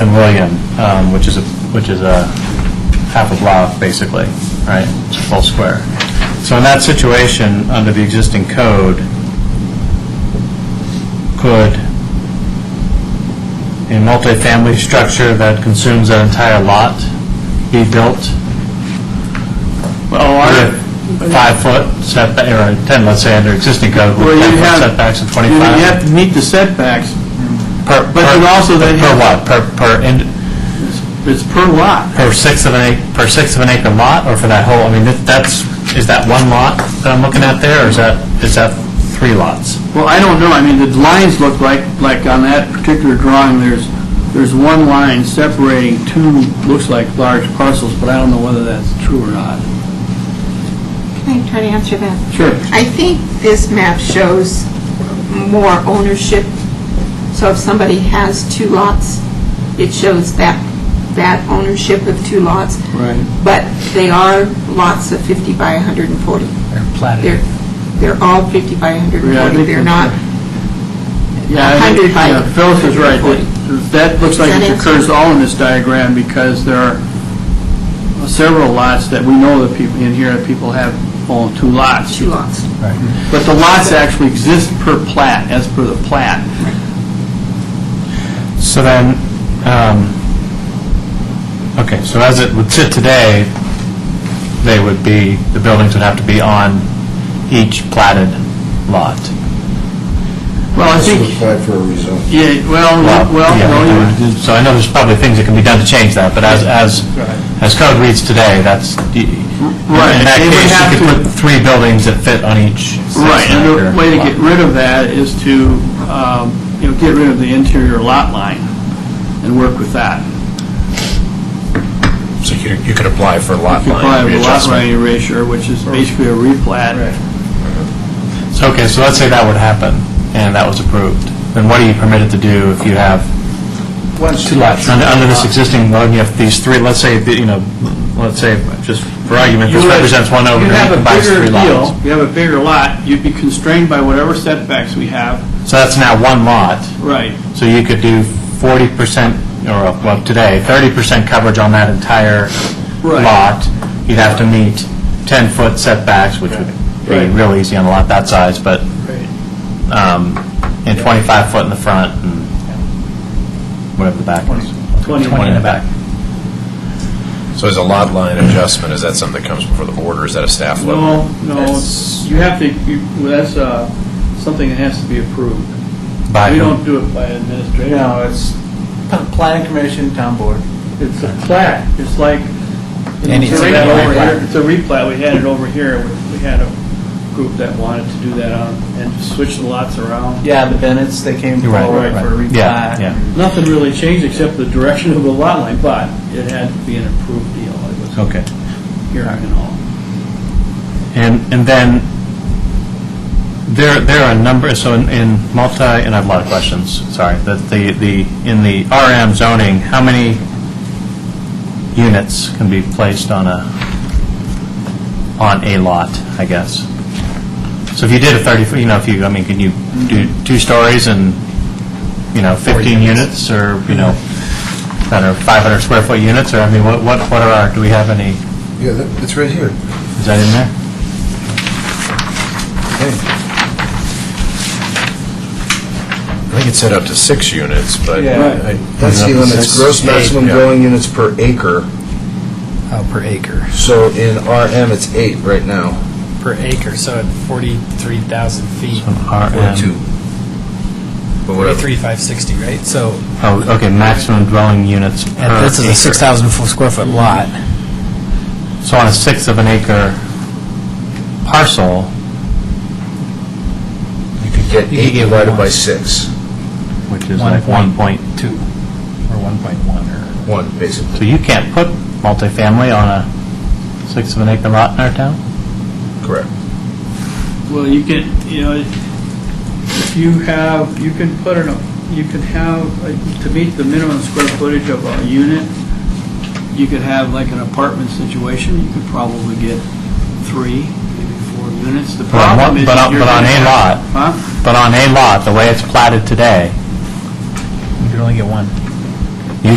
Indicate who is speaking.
Speaker 1: and William, um, which is a, which is a half a block, basically, right? It's a full square. So in that situation, under the existing code, could a multifamily structure that consumes an entire lot be built
Speaker 2: Well,
Speaker 1: with
Speaker 2: our,
Speaker 1: five-foot setback, or 10, let's say, under existing code,
Speaker 2: Well,
Speaker 1: with
Speaker 2: you
Speaker 1: 10-foot
Speaker 2: have-
Speaker 1: setbacks and
Speaker 2: you
Speaker 1: 25?
Speaker 2: have to meet the setbacks.
Speaker 1: Per, per-
Speaker 2: But then also they
Speaker 1: Per
Speaker 2: have-
Speaker 1: what? Per, per, ind-
Speaker 2: It's per lot.
Speaker 1: per sixth of an acre, per sixth of an acre lot, or for that whole, I mean, that- that's, is that one lot that I'm looking at there, or is that, is that three lots?
Speaker 2: Well, I don't know, I mean, the lines look like, like on that particular drawing, there's, there's one line separating two, looks like large parcels, but I don't know whether that's true or not.
Speaker 3: Can I try to answer that?
Speaker 2: Sure.
Speaker 3: I think this map shows more ownership. So if somebody has two lots, it shows that, that ownership of two lots.
Speaker 2: Right.
Speaker 3: But they are lots of 50 by 140. They're platted. They're, they're all 50
Speaker 2: Yeah,
Speaker 3: by
Speaker 2: I
Speaker 3: 140.
Speaker 2: think
Speaker 3: They're
Speaker 2: that's
Speaker 3: not,
Speaker 2: Yeah, I think-
Speaker 3: 100 by
Speaker 2: yeah, Phyllis is right, That- that looks like
Speaker 3: Does that
Speaker 2: it
Speaker 3: answer?
Speaker 2: occurs all in this diagram, because there are several lots that we know that people, in here, that people have own two lots.
Speaker 3: two lots.
Speaker 2: But the lots actually exist per plat, as per the plat.
Speaker 1: So then, um, okay, so as it would sit today, they would be, the buildings would have to be on each platted lot.
Speaker 2: Well, I
Speaker 4: This
Speaker 2: think,
Speaker 4: was applied for a rezon.
Speaker 2: yeah, well,
Speaker 1: Lot,
Speaker 2: well,
Speaker 1: yeah.
Speaker 2: no, you're,
Speaker 1: So I know there's probably things that can be done to change that, but as, as,
Speaker 2: Right.
Speaker 1: as code reads today, that's, y-
Speaker 2: Right,
Speaker 1: in that
Speaker 2: they would
Speaker 1: case,
Speaker 2: have
Speaker 1: you could
Speaker 2: to-
Speaker 1: put three buildings that fit on each sixth
Speaker 2: Right, and
Speaker 1: acre
Speaker 2: the way to
Speaker 1: lot.
Speaker 2: get rid of that is to, um, you know, get rid of the interior lot line and work with that.
Speaker 5: So you you could apply for lot
Speaker 2: You probably
Speaker 5: line
Speaker 2: have a lot
Speaker 5: readjustment.
Speaker 2: line erasure, which is basically a replat.
Speaker 1: So, okay, so let's say that would happen, and that was approved. Then what are you permitted to do if you have,
Speaker 4: Once,
Speaker 1: under, under this existing one, you have these three, let's say, that, you know, let's say, just for argument, this
Speaker 2: You would-
Speaker 1: represents one over,
Speaker 2: you have a
Speaker 1: and combines
Speaker 2: bigger
Speaker 1: three
Speaker 2: deal,
Speaker 1: lots.
Speaker 2: You have a bigger lot, you'd be constrained by whatever setbacks we have.
Speaker 1: So that's now one lot,
Speaker 2: Right.
Speaker 1: so you could do forty percent, or, well, today, thirty percent coverage on that entire
Speaker 2: Right.
Speaker 1: lot. You'd have to meet ten-foot setbacks, which would be
Speaker 2: Right.
Speaker 1: real easy on a lot that size, but, um, and twenty-five foot in the front, and whatever the back is.
Speaker 2: 20
Speaker 5: So is a lot line adjustment, is that something that comes before the board, or is that a staff level?
Speaker 2: No, no, you have to, you- well, that's uh, something that has to be approved.
Speaker 1: By
Speaker 2: We
Speaker 1: whom?
Speaker 2: don't do it by administration.
Speaker 6: No, it's planning commission, town board.
Speaker 2: It's a plat, it's like,
Speaker 6: Any-
Speaker 2: it's a
Speaker 6: it's a
Speaker 2: replat over
Speaker 6: replat.
Speaker 2: here, it's a replat, we had it over here, We- we had a group that wanted to do that on, and switch the lots around.
Speaker 6: Yeah, the Bennett's, they came
Speaker 1: You're right,
Speaker 6: forward
Speaker 1: right,
Speaker 6: for a
Speaker 1: right.
Speaker 6: replat.
Speaker 1: Yeah, yeah.
Speaker 2: Nothing really changed except the direction of the lot line, but it had to be an approved deal, it was
Speaker 1: Okay.
Speaker 2: hearing and all.
Speaker 1: And, and then, there, there are a number, so in- in multi, and I have a lot of questions, sorry, that the, the, in the RM zoning, how many units can be placed on a, on a lot, I guess? So if you did a 30, you know, if you, I mean, can you do two stories and, you know, 15 units, or, you know, I don't know, 500 square foot units, or, I mean, what, what what are our, do we have any,
Speaker 4: yeah, that- it's right here.
Speaker 1: is that in there?
Speaker 5: I think it's set up to six units, but.
Speaker 6: Yeah.
Speaker 5: I-
Speaker 4: That's the limit, it's gross maximum
Speaker 5: Yeah.
Speaker 4: dwelling units per acre.
Speaker 7: Oh, per acre.
Speaker 4: So in RM, it's eight right now,
Speaker 7: Per acre, so at 43,000 feet,
Speaker 4: or
Speaker 1: RM.
Speaker 4: two. But whatever.
Speaker 7: 43,560, right? So,
Speaker 1: Oh, okay, maximum dwelling units per
Speaker 7: and this is a
Speaker 1: acre.
Speaker 7: 6,000 f- square foot lot.
Speaker 1: So on a sixth of an acre parcel,
Speaker 4: You could get
Speaker 7: You could
Speaker 4: eight
Speaker 7: get
Speaker 4: divided
Speaker 7: one.
Speaker 4: by six,
Speaker 1: which is like 1.2,
Speaker 7: Or 1.1 or...
Speaker 4: one, basically.
Speaker 1: so you can't put multifamily on a sixth of an acre lot in our town?
Speaker 4: Correct.
Speaker 2: Well, you can, you know, if you have, you can put in, a- you can have, uh, to meet the minimum square footage of a unit, you could have like an apartment situation, you could probably get three, maybe four units. The
Speaker 1: But on
Speaker 2: problem
Speaker 1: one-
Speaker 2: is
Speaker 1: but on-
Speaker 2: you're
Speaker 1: but on
Speaker 2: gonna
Speaker 1: a
Speaker 2: have-
Speaker 1: lot.
Speaker 2: Huh?
Speaker 1: But on a lot, the way it's platted today,
Speaker 7: You can only get one.